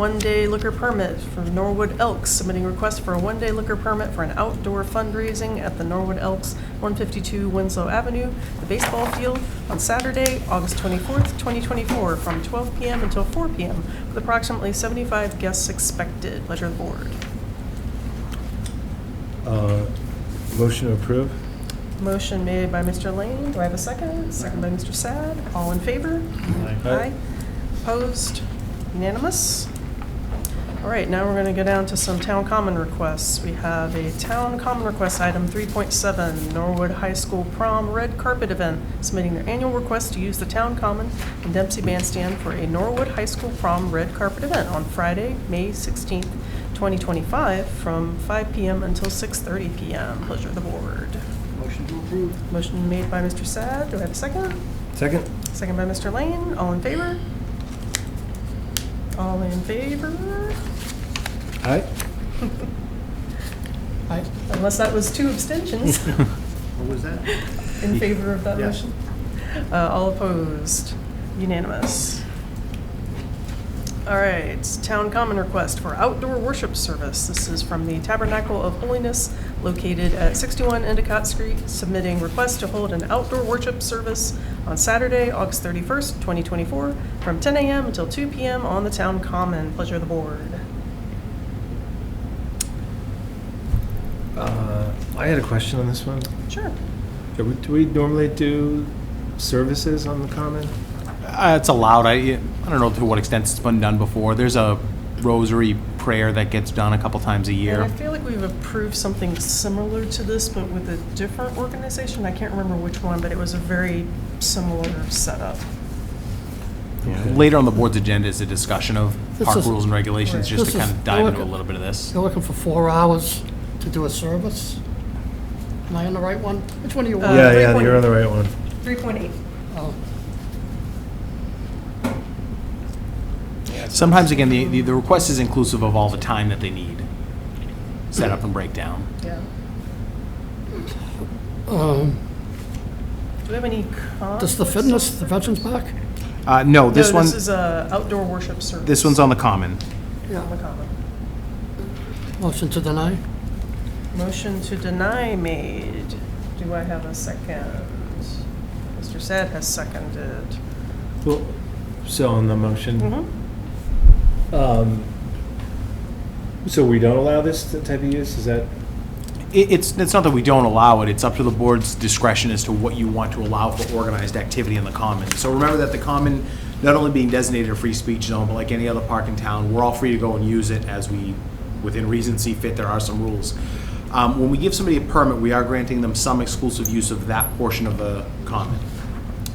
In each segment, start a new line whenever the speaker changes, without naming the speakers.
one-day liquor permit for Norwood Elks, submitting request for a one-day liquor permit for an outdoor fundraising at the Norwood Elks, 152 Winslow Avenue, the baseball field, on Saturday, August 24th, 2024, from 12 PM until 4 PM, with approximately 75 guests expected. Pleasure of the board.
Uh, Motion to approve?
Motion made by Mr. Lane. Do I have a second? Second by Mr. Sad. All in favor?
Aye.
Opposed? Unanimous? All right, now we're going to go down to some town common requests. We have a town common request, item 3.7, Norwood High School Prom Red Carpet Event, submitting their annual request to use the town common and Dempsey Bandstand for a Norwood High School Prom Red Carpet Event on Friday, May 16th, 2025, from 5 PM until 6:30 PM. Pleasure of the board.
Motion to approve.
Motion made by Mr. Sad. Do I have a second?
Second?
Second by Mr. Lane. All in favor? All in favor?
Aye?
Aye.
Unless that was two abstentions
What was that?
in favor of that
Yes.
motion. Uh, All opposed? Unanimous. All right, town common request for outdoor worship service. This is from the Tabernacle of Holiness located at 61 Endicott Street, submitting request to hold an outdoor worship service on Saturday, August 31st, 2024, from 10 a.m. until 2 p.m. on the town common. Pleasure of the board.
Uh, I had a question on this one.
Sure.
Do we- do we normally do services on the common?
Uh, It's allowed. I, I don't know to what extent it's been done before. There's a rosary prayer that gets done a couple times a
And
year.
I feel like we've approved something similar to this, but with a different organization. I can't remember which one, but it was a very similar setup.
Okay.
Later on the board's agenda is a discussion of
This
park
is-
rules and regulations, just
This
to
is-
kind of dive into a
okay.
little bit of this.
You're looking for four hours to do a service? Am I on the right one? Which one do you
Uh,
want?
Yeah, yeah, you're on the right one.
3.8.
Oh,
Sometimes, again, the, the- the request is inclusive of all the time that they need, set up and breakdown.
Yeah. Do
um,
we have any comments?
Does the fitness, the Veterans Park?
Uh, no, this
No,
one,
this is a outdoor worship service.
this one's on the common.
On the common.
Motion to deny?
Motion to deny made. Do I have a second? Mr. Sad has seconded.
Well, so on the motion,
Mhm. Mm-hmm.
um, so we don't allow this type of use, is that?
It, it's, it's not that we don't allow it, it's up to the board's discretion as to what you want to allow for organized activity in the common. So remember that the common, not only being designated a free speech zone, but like any other park in town, we're all free to go and use it as we, within reason see fit, there are some rules. Um, when we give somebody a permit, we are granting them some exclusive use of that portion of the common.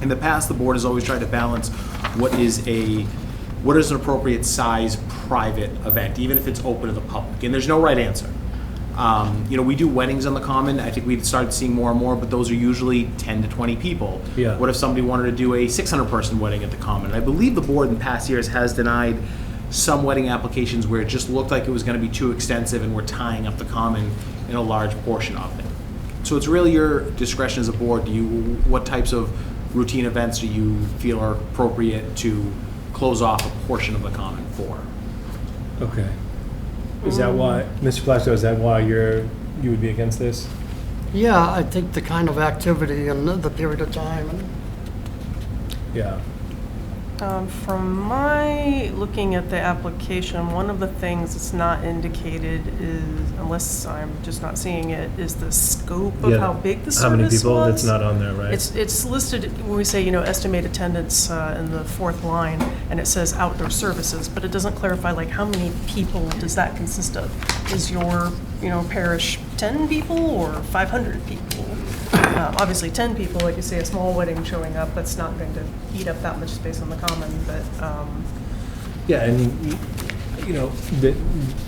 In the past, the board has always tried to balance what is a, what is an appropriate size private event, even if it's open to the public, and there's no right answer. Um, you know, we do weddings on the common. I think we've started seeing more and more, but those are usually 10 to 20 people.
Yeah.
What if somebody wanted to do a 600 person wedding at the common? And I believe the board in past years has denied some wedding applications where it just looked like it was going to be too extensive and we're tying up the common in a large portion of it. So it's really your discretion as a board. Do you what types of routine events do you feel are appropriate to close off a portion of the common for?
Okay. Is
Mm.
that why, Mr. Plasko, is that why you're, you would be against this?
Yeah, I think the kind of activity and the period of time, and
Yeah.
Um, From my, looking at the application, one of the things that's not indicated is, unless I'm just not seeing it, is the scope of how big the service was.
How many people? It's not on there, right?
It's, it's listed, when we say, you know, estimate attendance uh, in the fourth line, and it says outdoor services, but it doesn't clarify, like, how many people does that consist of? Is your, you know, parish 10 people or 500 people? Uh, Obviously, 10 people, like you say, a small wedding showing up, that's not going to eat up that much space on the common, but, um,
Yeah, and, you- you know, they,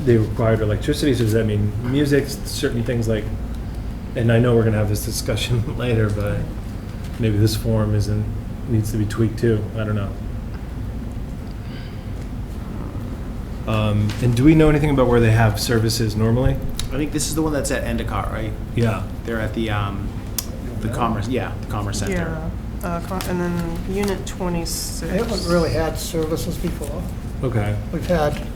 they required electricity, so does that mean music, certain things like, and I know we're gonna have this discussion later, but maybe this form isn't, needs to be tweaked too, I don't know. Um, and do we know anything about where they have services normally?
I think this is the one that's at Endicott, right?
Yeah.
They're at the, um, the Commerce, yeah, the Commerce
yeah.
Center.
Uh, con- And then Unit 26.
we haven't really had services before.
Okay.
We've had